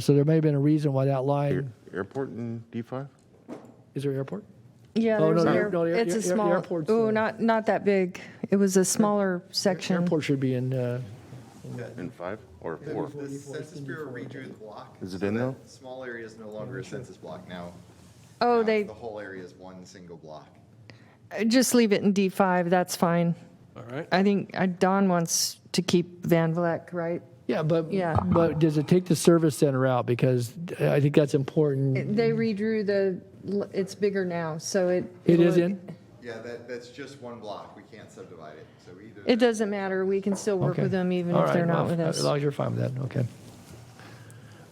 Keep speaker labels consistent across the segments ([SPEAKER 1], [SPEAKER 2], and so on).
[SPEAKER 1] So there may have been a reason why that line,
[SPEAKER 2] Airport in D5?
[SPEAKER 1] is there airport?
[SPEAKER 3] Yeah,
[SPEAKER 1] Oh,
[SPEAKER 3] there's
[SPEAKER 1] no,
[SPEAKER 3] an
[SPEAKER 1] no,
[SPEAKER 3] air,
[SPEAKER 1] no, the air-
[SPEAKER 3] it's
[SPEAKER 1] air-
[SPEAKER 3] a small,
[SPEAKER 1] airport's, uh,
[SPEAKER 3] oh, not, not that big. It was a smaller section.
[SPEAKER 1] Airport should be in, uh,
[SPEAKER 2] In 5 or 4?
[SPEAKER 4] The Census Bureau redrew the block.
[SPEAKER 2] Is it
[SPEAKER 4] so
[SPEAKER 2] in
[SPEAKER 4] that
[SPEAKER 2] though?
[SPEAKER 4] Small area is no longer a census block now.
[SPEAKER 3] Oh,
[SPEAKER 4] Now
[SPEAKER 3] they,
[SPEAKER 4] The whole area is one single block.
[SPEAKER 3] just leave it in D5, that's fine.
[SPEAKER 5] All right.
[SPEAKER 3] I think uh, Don wants to keep Van Vleck, right?
[SPEAKER 1] yeah, but,
[SPEAKER 3] Yeah.
[SPEAKER 1] but does it take the service center out? Because I think that's important.
[SPEAKER 3] They redrew the, l- it's bigger now, so it.
[SPEAKER 1] It is
[SPEAKER 3] it'll-
[SPEAKER 1] in?
[SPEAKER 4] Yeah, that, that's just one block. We can't subdivide it. So either.
[SPEAKER 3] It doesn't matter, we can still work
[SPEAKER 1] Okay.
[SPEAKER 3] with them even
[SPEAKER 1] All
[SPEAKER 3] if they're
[SPEAKER 1] right,
[SPEAKER 3] not
[SPEAKER 1] well, uh,
[SPEAKER 3] with us.
[SPEAKER 1] As long as you're fine with that, okay.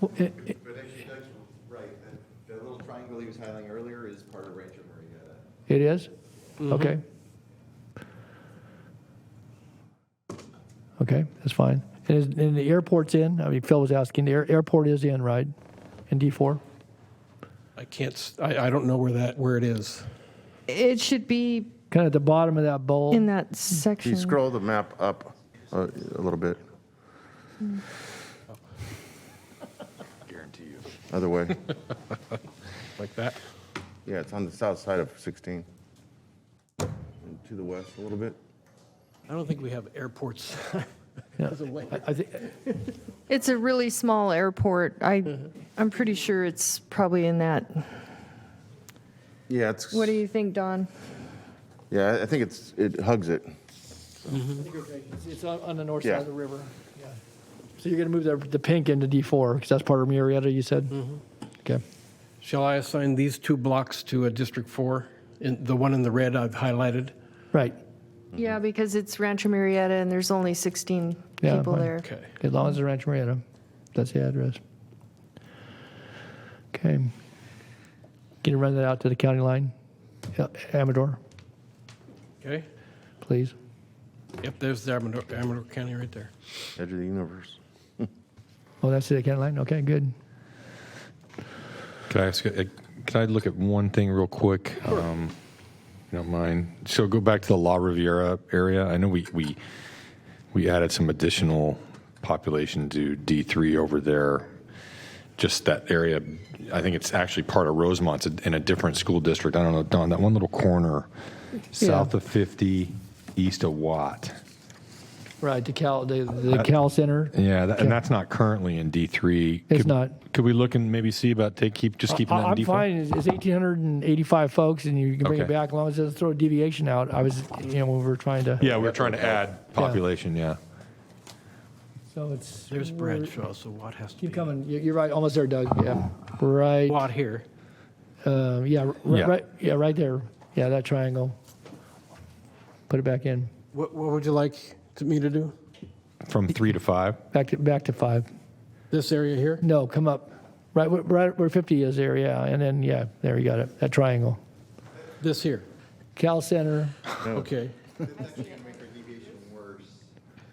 [SPEAKER 1] Well, eh, eh,
[SPEAKER 4] But actually, Doug's right. That, that little triangle he was highlighting earlier is part of Rancho Marietta.
[SPEAKER 1] It is? Okay. Okay, that's fine. And, is- and the airport's in? I mean, Phil was asking, the air- airport is in, right? In D4?
[SPEAKER 5] I can't, s- I, I don't know where that, where it is.
[SPEAKER 3] It should be
[SPEAKER 1] Kind of at the bottom of that bowl?
[SPEAKER 3] in that
[SPEAKER 2] Can you
[SPEAKER 3] section.
[SPEAKER 2] scroll the map up uh, a little bit?
[SPEAKER 4] Guarantee you.
[SPEAKER 2] Other way.
[SPEAKER 5] Like that?
[SPEAKER 2] Yeah, it's on the south side of 16. And to the west a little bit.
[SPEAKER 5] I don't think we have airports.
[SPEAKER 1] Yeah.
[SPEAKER 5] as a way.
[SPEAKER 1] I- I think,
[SPEAKER 3] It's a really small airport. I,
[SPEAKER 1] Mm-hmm.
[SPEAKER 3] I'm pretty sure it's probably in that.
[SPEAKER 2] Yeah, it's,
[SPEAKER 3] What do you think, Don?
[SPEAKER 2] yeah, I- I think it's, it hugs it.
[SPEAKER 1] It's- It's on on the north side
[SPEAKER 2] Yeah.
[SPEAKER 1] of the river. Yeah. So you're going to move the, the pink into D4 because that's part of Murrieta, you said? Okay.
[SPEAKER 5] Shall I assign these two blocks to a District 4? In- The one in the red I've highlighted?
[SPEAKER 1] Right.
[SPEAKER 3] Yeah, because it's Rancho Marietta and there's only 16
[SPEAKER 1] Yeah,
[SPEAKER 3] people
[SPEAKER 1] fine.
[SPEAKER 3] there.
[SPEAKER 5] Okay.
[SPEAKER 1] As long as it's Rancho Murrieta, that's the address. Okay. Can you run that out to the county line? Yeah, Amador,
[SPEAKER 5] Okay?
[SPEAKER 1] please.
[SPEAKER 5] Yep, there's the Amador, Amador County right there.
[SPEAKER 2] Edge of the universe.
[SPEAKER 1] Oh, that's the county line? Okay, good.
[SPEAKER 6] Can I ask? you- eh, Can I look at one thing real quick? Um, if you don't mind. So go back to the La Riviera area. I know we we we added some additional population to D three over there. Just that area. I think it's actually part of Rosemont it's in a different school district. I don't know, Don. That one little corner, south of fifty, east of Watt.
[SPEAKER 1] Right, the Cal, the,
[SPEAKER 6] Uh,
[SPEAKER 1] the Cal Center.
[SPEAKER 6] Yeah, that, and that's not currently in D three.
[SPEAKER 1] It's not.
[SPEAKER 6] Could we look and maybe see about take keep just keeping
[SPEAKER 1] I-
[SPEAKER 6] that in
[SPEAKER 1] I'm
[SPEAKER 6] D four?
[SPEAKER 1] fine. It's it's 1,885 folks, and you can bring it
[SPEAKER 6] Okay.
[SPEAKER 1] back as long as it doesn't throw a deviation out. I was, you know, when we were trying to.
[SPEAKER 6] Yeah, we we're trying to add population, yeah.
[SPEAKER 1] So it's.
[SPEAKER 5] There's
[SPEAKER 1] we're-
[SPEAKER 5] Bradshaw, so Watt has to be.
[SPEAKER 1] Keep coming. You- You're right. Almost there, Doug. Yeah. Right.
[SPEAKER 5] Watt here.
[SPEAKER 1] Uh, yeah, r- r-
[SPEAKER 6] Yeah.
[SPEAKER 1] Right. Yeah. Right there. Yeah. That triangle. Put it back in.
[SPEAKER 5] What, what would you like to- me to do?
[SPEAKER 6] From three to five?
[SPEAKER 1] Back to back to five.
[SPEAKER 5] This area here?
[SPEAKER 1] No, come up. Right. where- Right where 50 is there. Yeah. And then yeah. There you got it. That triangle.
[SPEAKER 5] This here?
[SPEAKER 1] Cal Center.
[SPEAKER 5] Okay.
[SPEAKER 4] That's actually going to make our deviation worse.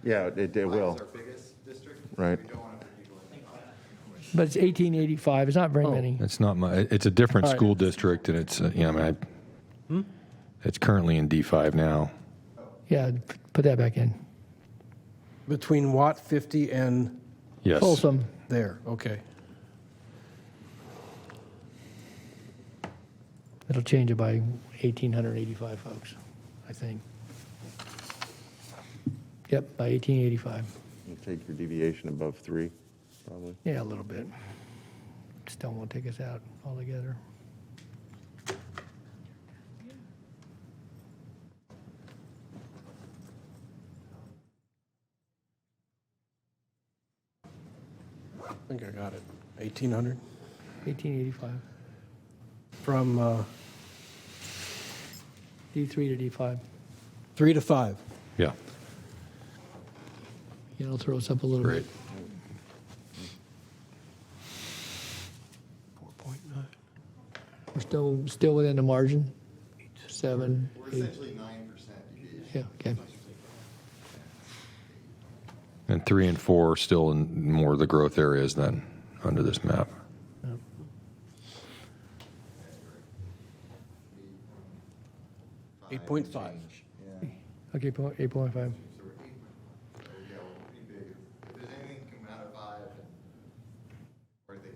[SPEAKER 2] Yeah, it, it
[SPEAKER 4] Five
[SPEAKER 2] will.
[SPEAKER 4] is our biggest district.
[SPEAKER 2] Right.
[SPEAKER 4] We don't want to put people in.
[SPEAKER 1] But it's 1885. It's not
[SPEAKER 6] Oh.
[SPEAKER 1] very many.
[SPEAKER 6] It's not my, it- it's a different
[SPEAKER 5] All right.
[SPEAKER 6] school district and it's, uh, you know, I mean, I- it's currently in D5 now.
[SPEAKER 1] Yeah. p- Put that back in.
[SPEAKER 5] Between Watt 50 and
[SPEAKER 6] Yes.
[SPEAKER 1] Folsom.
[SPEAKER 5] there, okay.
[SPEAKER 1] It'll change it by 1,885 folks, I think. Yep. By 1885.
[SPEAKER 2] You Take your deviation above 3, probably.
[SPEAKER 1] Yeah, a little bit. Still won't take us out altogether.
[SPEAKER 5] I think I got it. 1800?
[SPEAKER 1] 1885,
[SPEAKER 5] From uh,
[SPEAKER 1] D3 to D5.
[SPEAKER 5] 3 to 5.
[SPEAKER 6] Yeah,
[SPEAKER 1] Yeah, it'll throw us up a little
[SPEAKER 6] great.
[SPEAKER 1] bit. 4.9. We're still, still within the margin? Seven,
[SPEAKER 4] We're
[SPEAKER 1] eight,
[SPEAKER 4] essentially 9% deviation.
[SPEAKER 1] yeah, okay.
[SPEAKER 6] And three and four are still in more of the growth areas than under this map.
[SPEAKER 4] Five
[SPEAKER 5] 8.5.
[SPEAKER 4] change. Yeah.
[SPEAKER 1] Okay, po- 8.5.